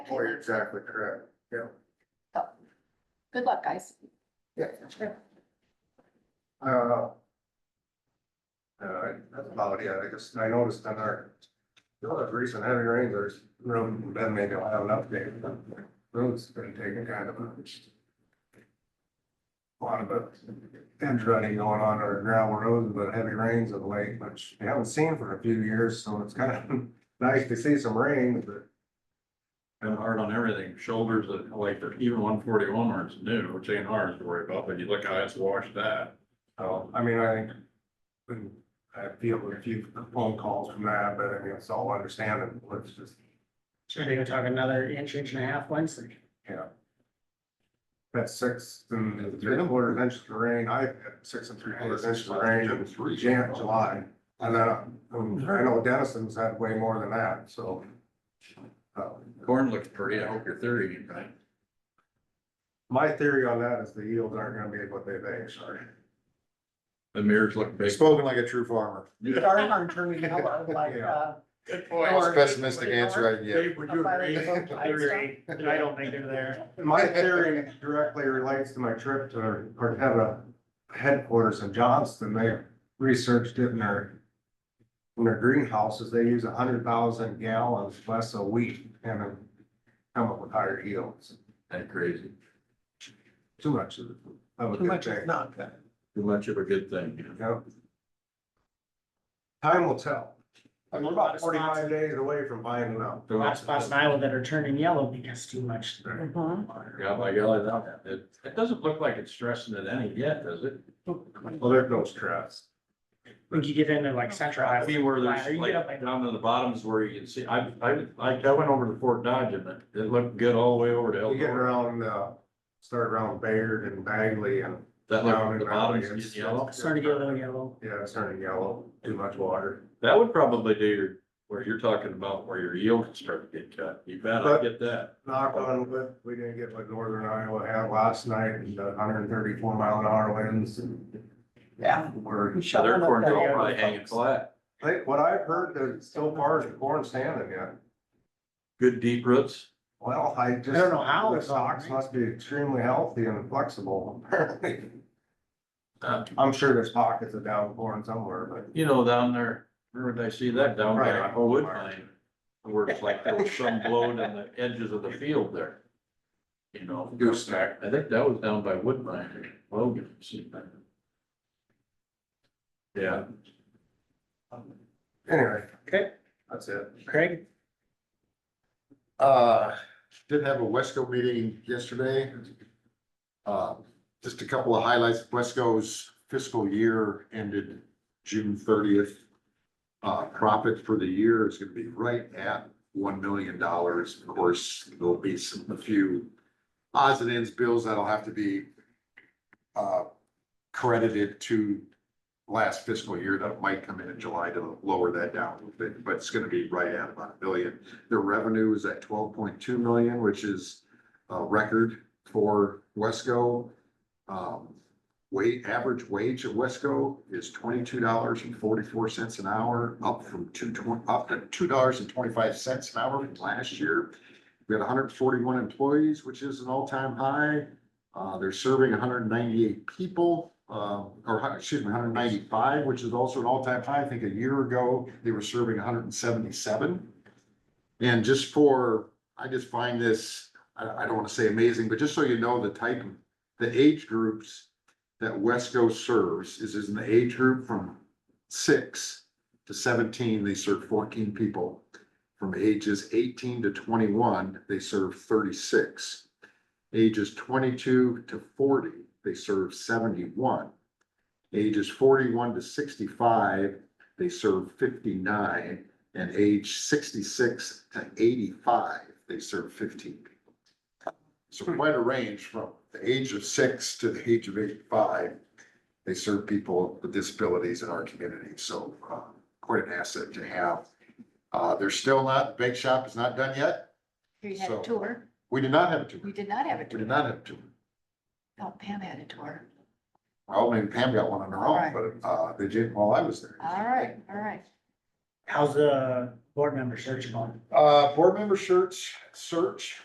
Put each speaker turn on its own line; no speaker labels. Oh, you're exactly correct. Yeah.
Good luck, guys.
Yeah. Uh. Uh, that's about it. I guess I noticed on our, you know, the recent heavy rains, there's room, Ben may not have an update. Roads been taking kind of a. Lot of a edge running going on our gravel roads, but heavy rains of late, which we haven't seen for a few years, so it's kind of nice to see some rain, but.
Been hard on everything, shoulders that like even one forty one ours new, which ain't ours to worry about, but you look how it's washed that.
So, I mean, I think, when I feel a few phone calls from that, but I mean, it's all understandable, it's just,
Sure, they were talking another inch, inch and a half Wednesday.
you know. That's six and three quarters inches of rain, I had six and three quarters inches of rain in Jan, July. And then, um, I know Denison's had way more than that, so. uh,
Corn looks pretty, I hope you're thirty, right?
My theory on that is the yields aren't gonna be what they think, sorry.
The mirrors look big.
Spoken like a true farmer.
Darn, turning yellow, like, uh.
Good
or-
Pessimistic answer I get.
would
Up by the- I agree, but I don't think they're there.
My theory directly relates to my trip to Corteva headquarters in Johnston. They researched it in their, in their greenhouses, they use hundred thousand gallons less of wheat and then come up with higher yields.
That crazy,
Too much of it. Too much is not.
too much of a good thing.
Time will tell.
There's a
We're
lot
about
of spots,
forty-five days away from buying them out.
a lot of spots in Iowa that are turning yellow because too much.
Mm-hmm.
Yeah, by golly, that, it, it doesn't look like it's stressing it any yet, does it?
Well, there's no stress.
When you get into like
Uh,
central
I
Iowa.
mean, where
Or
there's
you get up by-
like down to the bottoms where you can see, I, I, I I went over to Fort Dodge and it, it looked good all the way over to
You get
Eldora.
around, uh, start around Bayard and Bagley and,
That
Down
looked,
in
the
the
bottoms
valley, it's-
is yellow.
Starting to get a little yellow.
yeah, it's turning yellow, too much water.
That would probably do your, where you're talking about where your yield can start to get cut. You bet, I get that.
knock on wood, we didn't get what northern Iowa had last night, and hundred and thirty-four mile an hour winds and.
Yeah.
We're,
We
So
shut
their
them up
corn's
there.
all probably hanging flat.
I think what I've heard that so far is the corn standing yet.
Good deep roots.
Well, I just.
don't know how
The
it's all
stalks
right.
must be extremely healthy and flexible, apparently.
Uh,
I'm sure there's pockets of down corn somewhere, but
You know, down there, where did I see that? Down by
Right.
a wood line. Where it's like there was some blowing on the edges of the field there. You know.
gooseneck.
I think that was down by Woodbine, Logan. see that. Yeah,
Anyway.
Okay.
That's it.
Craig,
Uh, did have a Wesco meeting yesterday. Uh, just a couple of highlights. Wesco's fiscal year ended June thirtieth. Uh, profit for the year is gonna be right at one million dollars. Of course, there'll be some, a few odds and ends bills that'll have to be uh, credited to last fiscal year that might come in in July to lower that down a little bit, but it's gonna be right at about a billion. Their revenue was at twelve point two million, which is a record for Wesco. Um, wait, average wage at Wesco is twenty-two dollars and forty-four cents an hour, up from two twenty, up to two dollars and twenty-five cents an hour from last year. We had hundred and forty-one employees, which is an all-time high. Uh, they're serving hundred and ninety-eight people, uh, or, hu- excuse me, hundred and ninety-five, which is also an all-time high. I think a year ago, they were serving hundred and seventy-seven. And just for, I just find this, I, I don't wanna say amazing, but just so you know, the type, of- the age groups that Wesco serves is, is in the age group from six to seventeen, they serve fourteen people. From ages eighteen to twenty-one, they serve thirty-six. Ages twenty-two to forty, they serve seventy-one. Ages forty-one to sixty-five, they serve fifty-nine. And age sixty-six to eighty-five, they serve fifteen people. So
Hmm.
quite a range from the age of six to the age of eighty-five. They serve people with disabilities in our community, so uh, quite an asset to have. Uh, They're still not, the bake shop is not done yet.
We had
So-
a tour.
We did not have a tour.
We did not have a
We
tour.
did not have a tour.
No, Pam had a tour.
Well, maybe Pam got one on her
All right.
own, but uh, they did while I was there.
All right, all right.
how's the board member search one.
Uh, board member shirts, search,